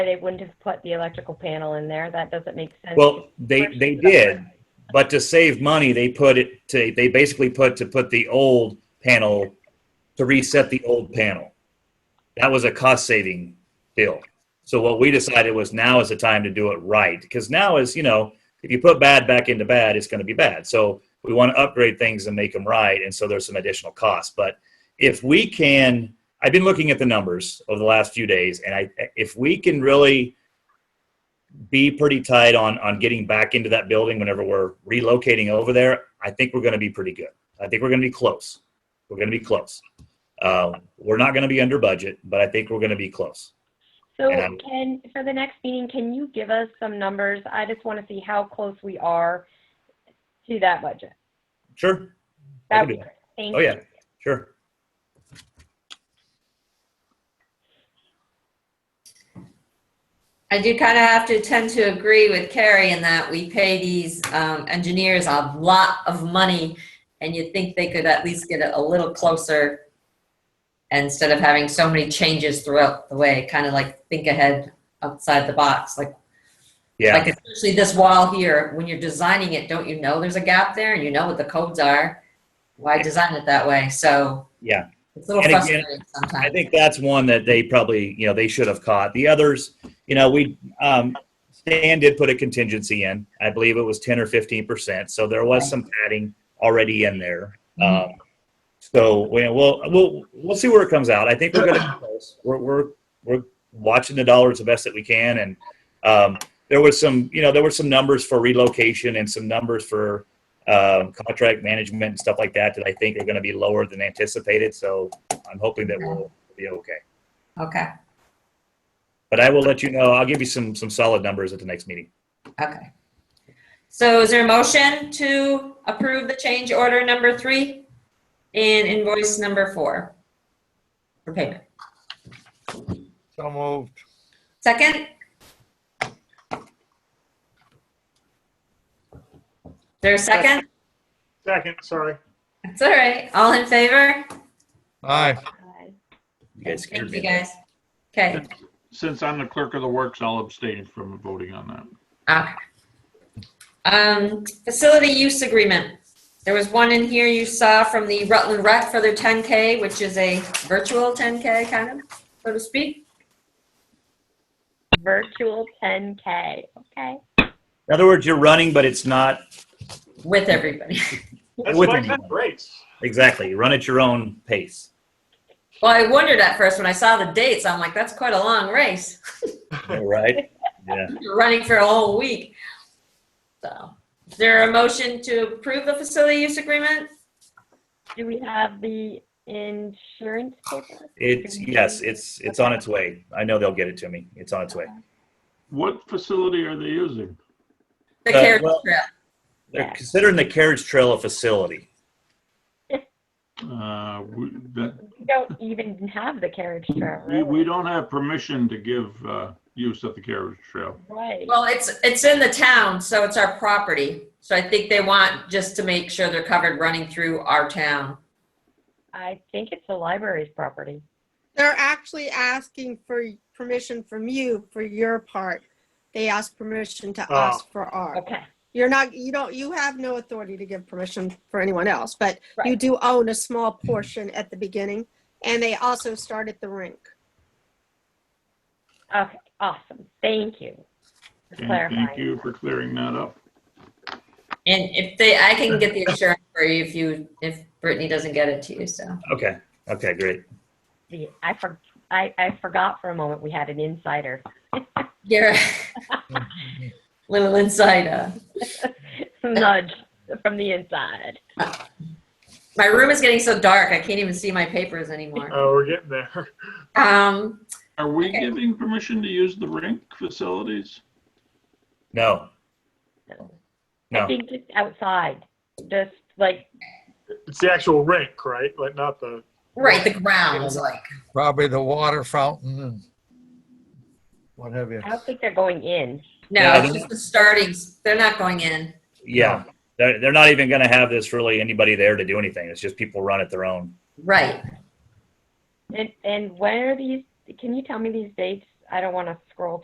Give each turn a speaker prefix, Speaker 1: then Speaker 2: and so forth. Speaker 1: they wouldn't have put the electrical panel in there. That doesn't make sense.
Speaker 2: Well, they, they did, but to save money, they put it to, they basically put to put the old panel, to reset the old panel. That was a cost saving deal. So what we decided was now is the time to do it right. Because now is, you know, if you put bad back into bad, it's going to be bad. So we want to upgrade things and make them right. And so there's some additional costs. But if we can, I've been looking at the numbers over the last few days, and I, if we can really, be pretty tight on on getting back into that building whenever we're relocating over there. I think we're going to be pretty good. I think we're going to be close. We're going to be close. Uh, we're not going to be under budget, but I think we're going to be close.
Speaker 1: So
Speaker 2: and-
Speaker 1: can, for the next meeting, can you give us some numbers? I just want to see how close we are to that budget.
Speaker 2: Sure. I
Speaker 1: That
Speaker 2: can
Speaker 1: would
Speaker 2: do
Speaker 1: be great. Thank
Speaker 2: Oh
Speaker 1: you.
Speaker 2: yeah. Sure.
Speaker 3: I do kind of have to tend to agree with Carrie in that we pay these um, engineers a lot of money, and you'd think they could at least get it a little closer instead of having so many changes throughout the way, kind of like think ahead outside the box, like
Speaker 2: Yeah.
Speaker 3: like especially this wall here, when you're designing it, don't you know there's a gap there and you know what the codes are? Why design it that way? So.
Speaker 2: Yeah.
Speaker 3: It's a little
Speaker 2: And again,
Speaker 3: frustrating
Speaker 2: I
Speaker 3: sometimes.
Speaker 2: think that's one that they probably, you know, they should have caught. The others, you know, we, um, Stan did put a contingency in. I believe it was 10 or 15%. So there was some padding already in there. Um, so we- we'll, we'll, we'll see where it comes out. I think we're going to, we're, we're, we're watching the dollars the best that we can. And, um, there was some, you know, there were some numbers for relocation and some numbers for, um, contract management and stuff like that that I think are going to be lower than anticipated. So, I'm hoping that we'll be okay.
Speaker 3: Okay,
Speaker 2: But I will let you know. I'll give you some some solid numbers at the next meeting.
Speaker 3: okay. So is there a motion to approve the change order number three and invoice number four for payment?
Speaker 4: So moved.
Speaker 3: Second? There's a second?
Speaker 5: Second, sorry.
Speaker 3: That's all right. All in favor?
Speaker 4: Aye.
Speaker 1: Bye.
Speaker 2: You guys scared
Speaker 3: Thank you,
Speaker 2: me.
Speaker 3: guys. Okay,
Speaker 5: Since I'm the clerk of the works, I'll abstain from voting on that.
Speaker 3: okay. Um, facility use agreement. There was one in here you saw from the Rutland Rec for their 10K, which is a virtual 10K kind of, so to speak.
Speaker 1: Virtual 10K, okay?
Speaker 2: In other words, you're running, but it's not
Speaker 3: With everybody.
Speaker 2: That's With why me. that
Speaker 5: race.
Speaker 2: exactly. You run at your own pace.
Speaker 3: Well, I wondered at first when I saw the dates, I'm like, that's quite a long race.
Speaker 2: right? Yeah.
Speaker 3: You're running for a whole week. So, is there a motion to approve the facility use agreement?
Speaker 1: Do we have the insurance paper?
Speaker 2: It's yes. It's it's on its way. I know they'll get it to me. It's on its way.
Speaker 5: What facility are they using?
Speaker 3: The
Speaker 2: Uh,
Speaker 3: carriage
Speaker 2: well-
Speaker 3: trail.
Speaker 2: They're considering the carriage trail a facility.
Speaker 5: Uh, we, that,
Speaker 1: We don't even have the carriage trail,
Speaker 5: we,
Speaker 1: really.
Speaker 5: we don't have permission to give, uh, use of the carriage trail.
Speaker 1: Right.
Speaker 3: Well, it's, it's in the town, so it's our property. So I think they want just to make sure they're covered running through our town.
Speaker 1: I think it's the library's property.
Speaker 6: They're actually asking for permission from you for your part. They ask permission to us for our.
Speaker 1: Okay.
Speaker 6: You're not, you don't, you have no authority to give permission for anyone else, but you
Speaker 1: Right.
Speaker 6: do own a small portion at the beginning. And they also start at the rink.
Speaker 1: Okay, awesome. Thank you for
Speaker 2: Mm-hmm.
Speaker 5: And thank
Speaker 1: clarifying.
Speaker 5: you for clearing that up.
Speaker 3: And if they, I can get the insurance for you if you, if Brittany doesn't get it to you, so.
Speaker 2: Okay. Okay. Great.
Speaker 1: See, I for, I, I forgot for a moment we had an insider.
Speaker 3: You're little uh, insider.
Speaker 1: Nudge from the inside.
Speaker 3: My room is getting so dark, I can't even see my papers anymore.
Speaker 7: Oh, we're getting there.
Speaker 3: Um,
Speaker 5: Are we
Speaker 3: Okay.
Speaker 5: giving permission to use the rink facilities?
Speaker 2: No.
Speaker 1: I
Speaker 2: No.
Speaker 1: think just outside, just like,
Speaker 7: It's the actual rink, right? Like not the.
Speaker 3: right, the grounds, like,
Speaker 4: Probably the water fountain and what have you.
Speaker 1: I don't think they're going in.
Speaker 3: no,
Speaker 2: Yeah,
Speaker 3: it's just the startings, they're not going in.
Speaker 2: Yeah. They're, they're not even going to have this really anybody there to do anything. It's just people run at their own.
Speaker 3: Right.
Speaker 1: And, and when are these, can you tell me these dates? I don't want to scroll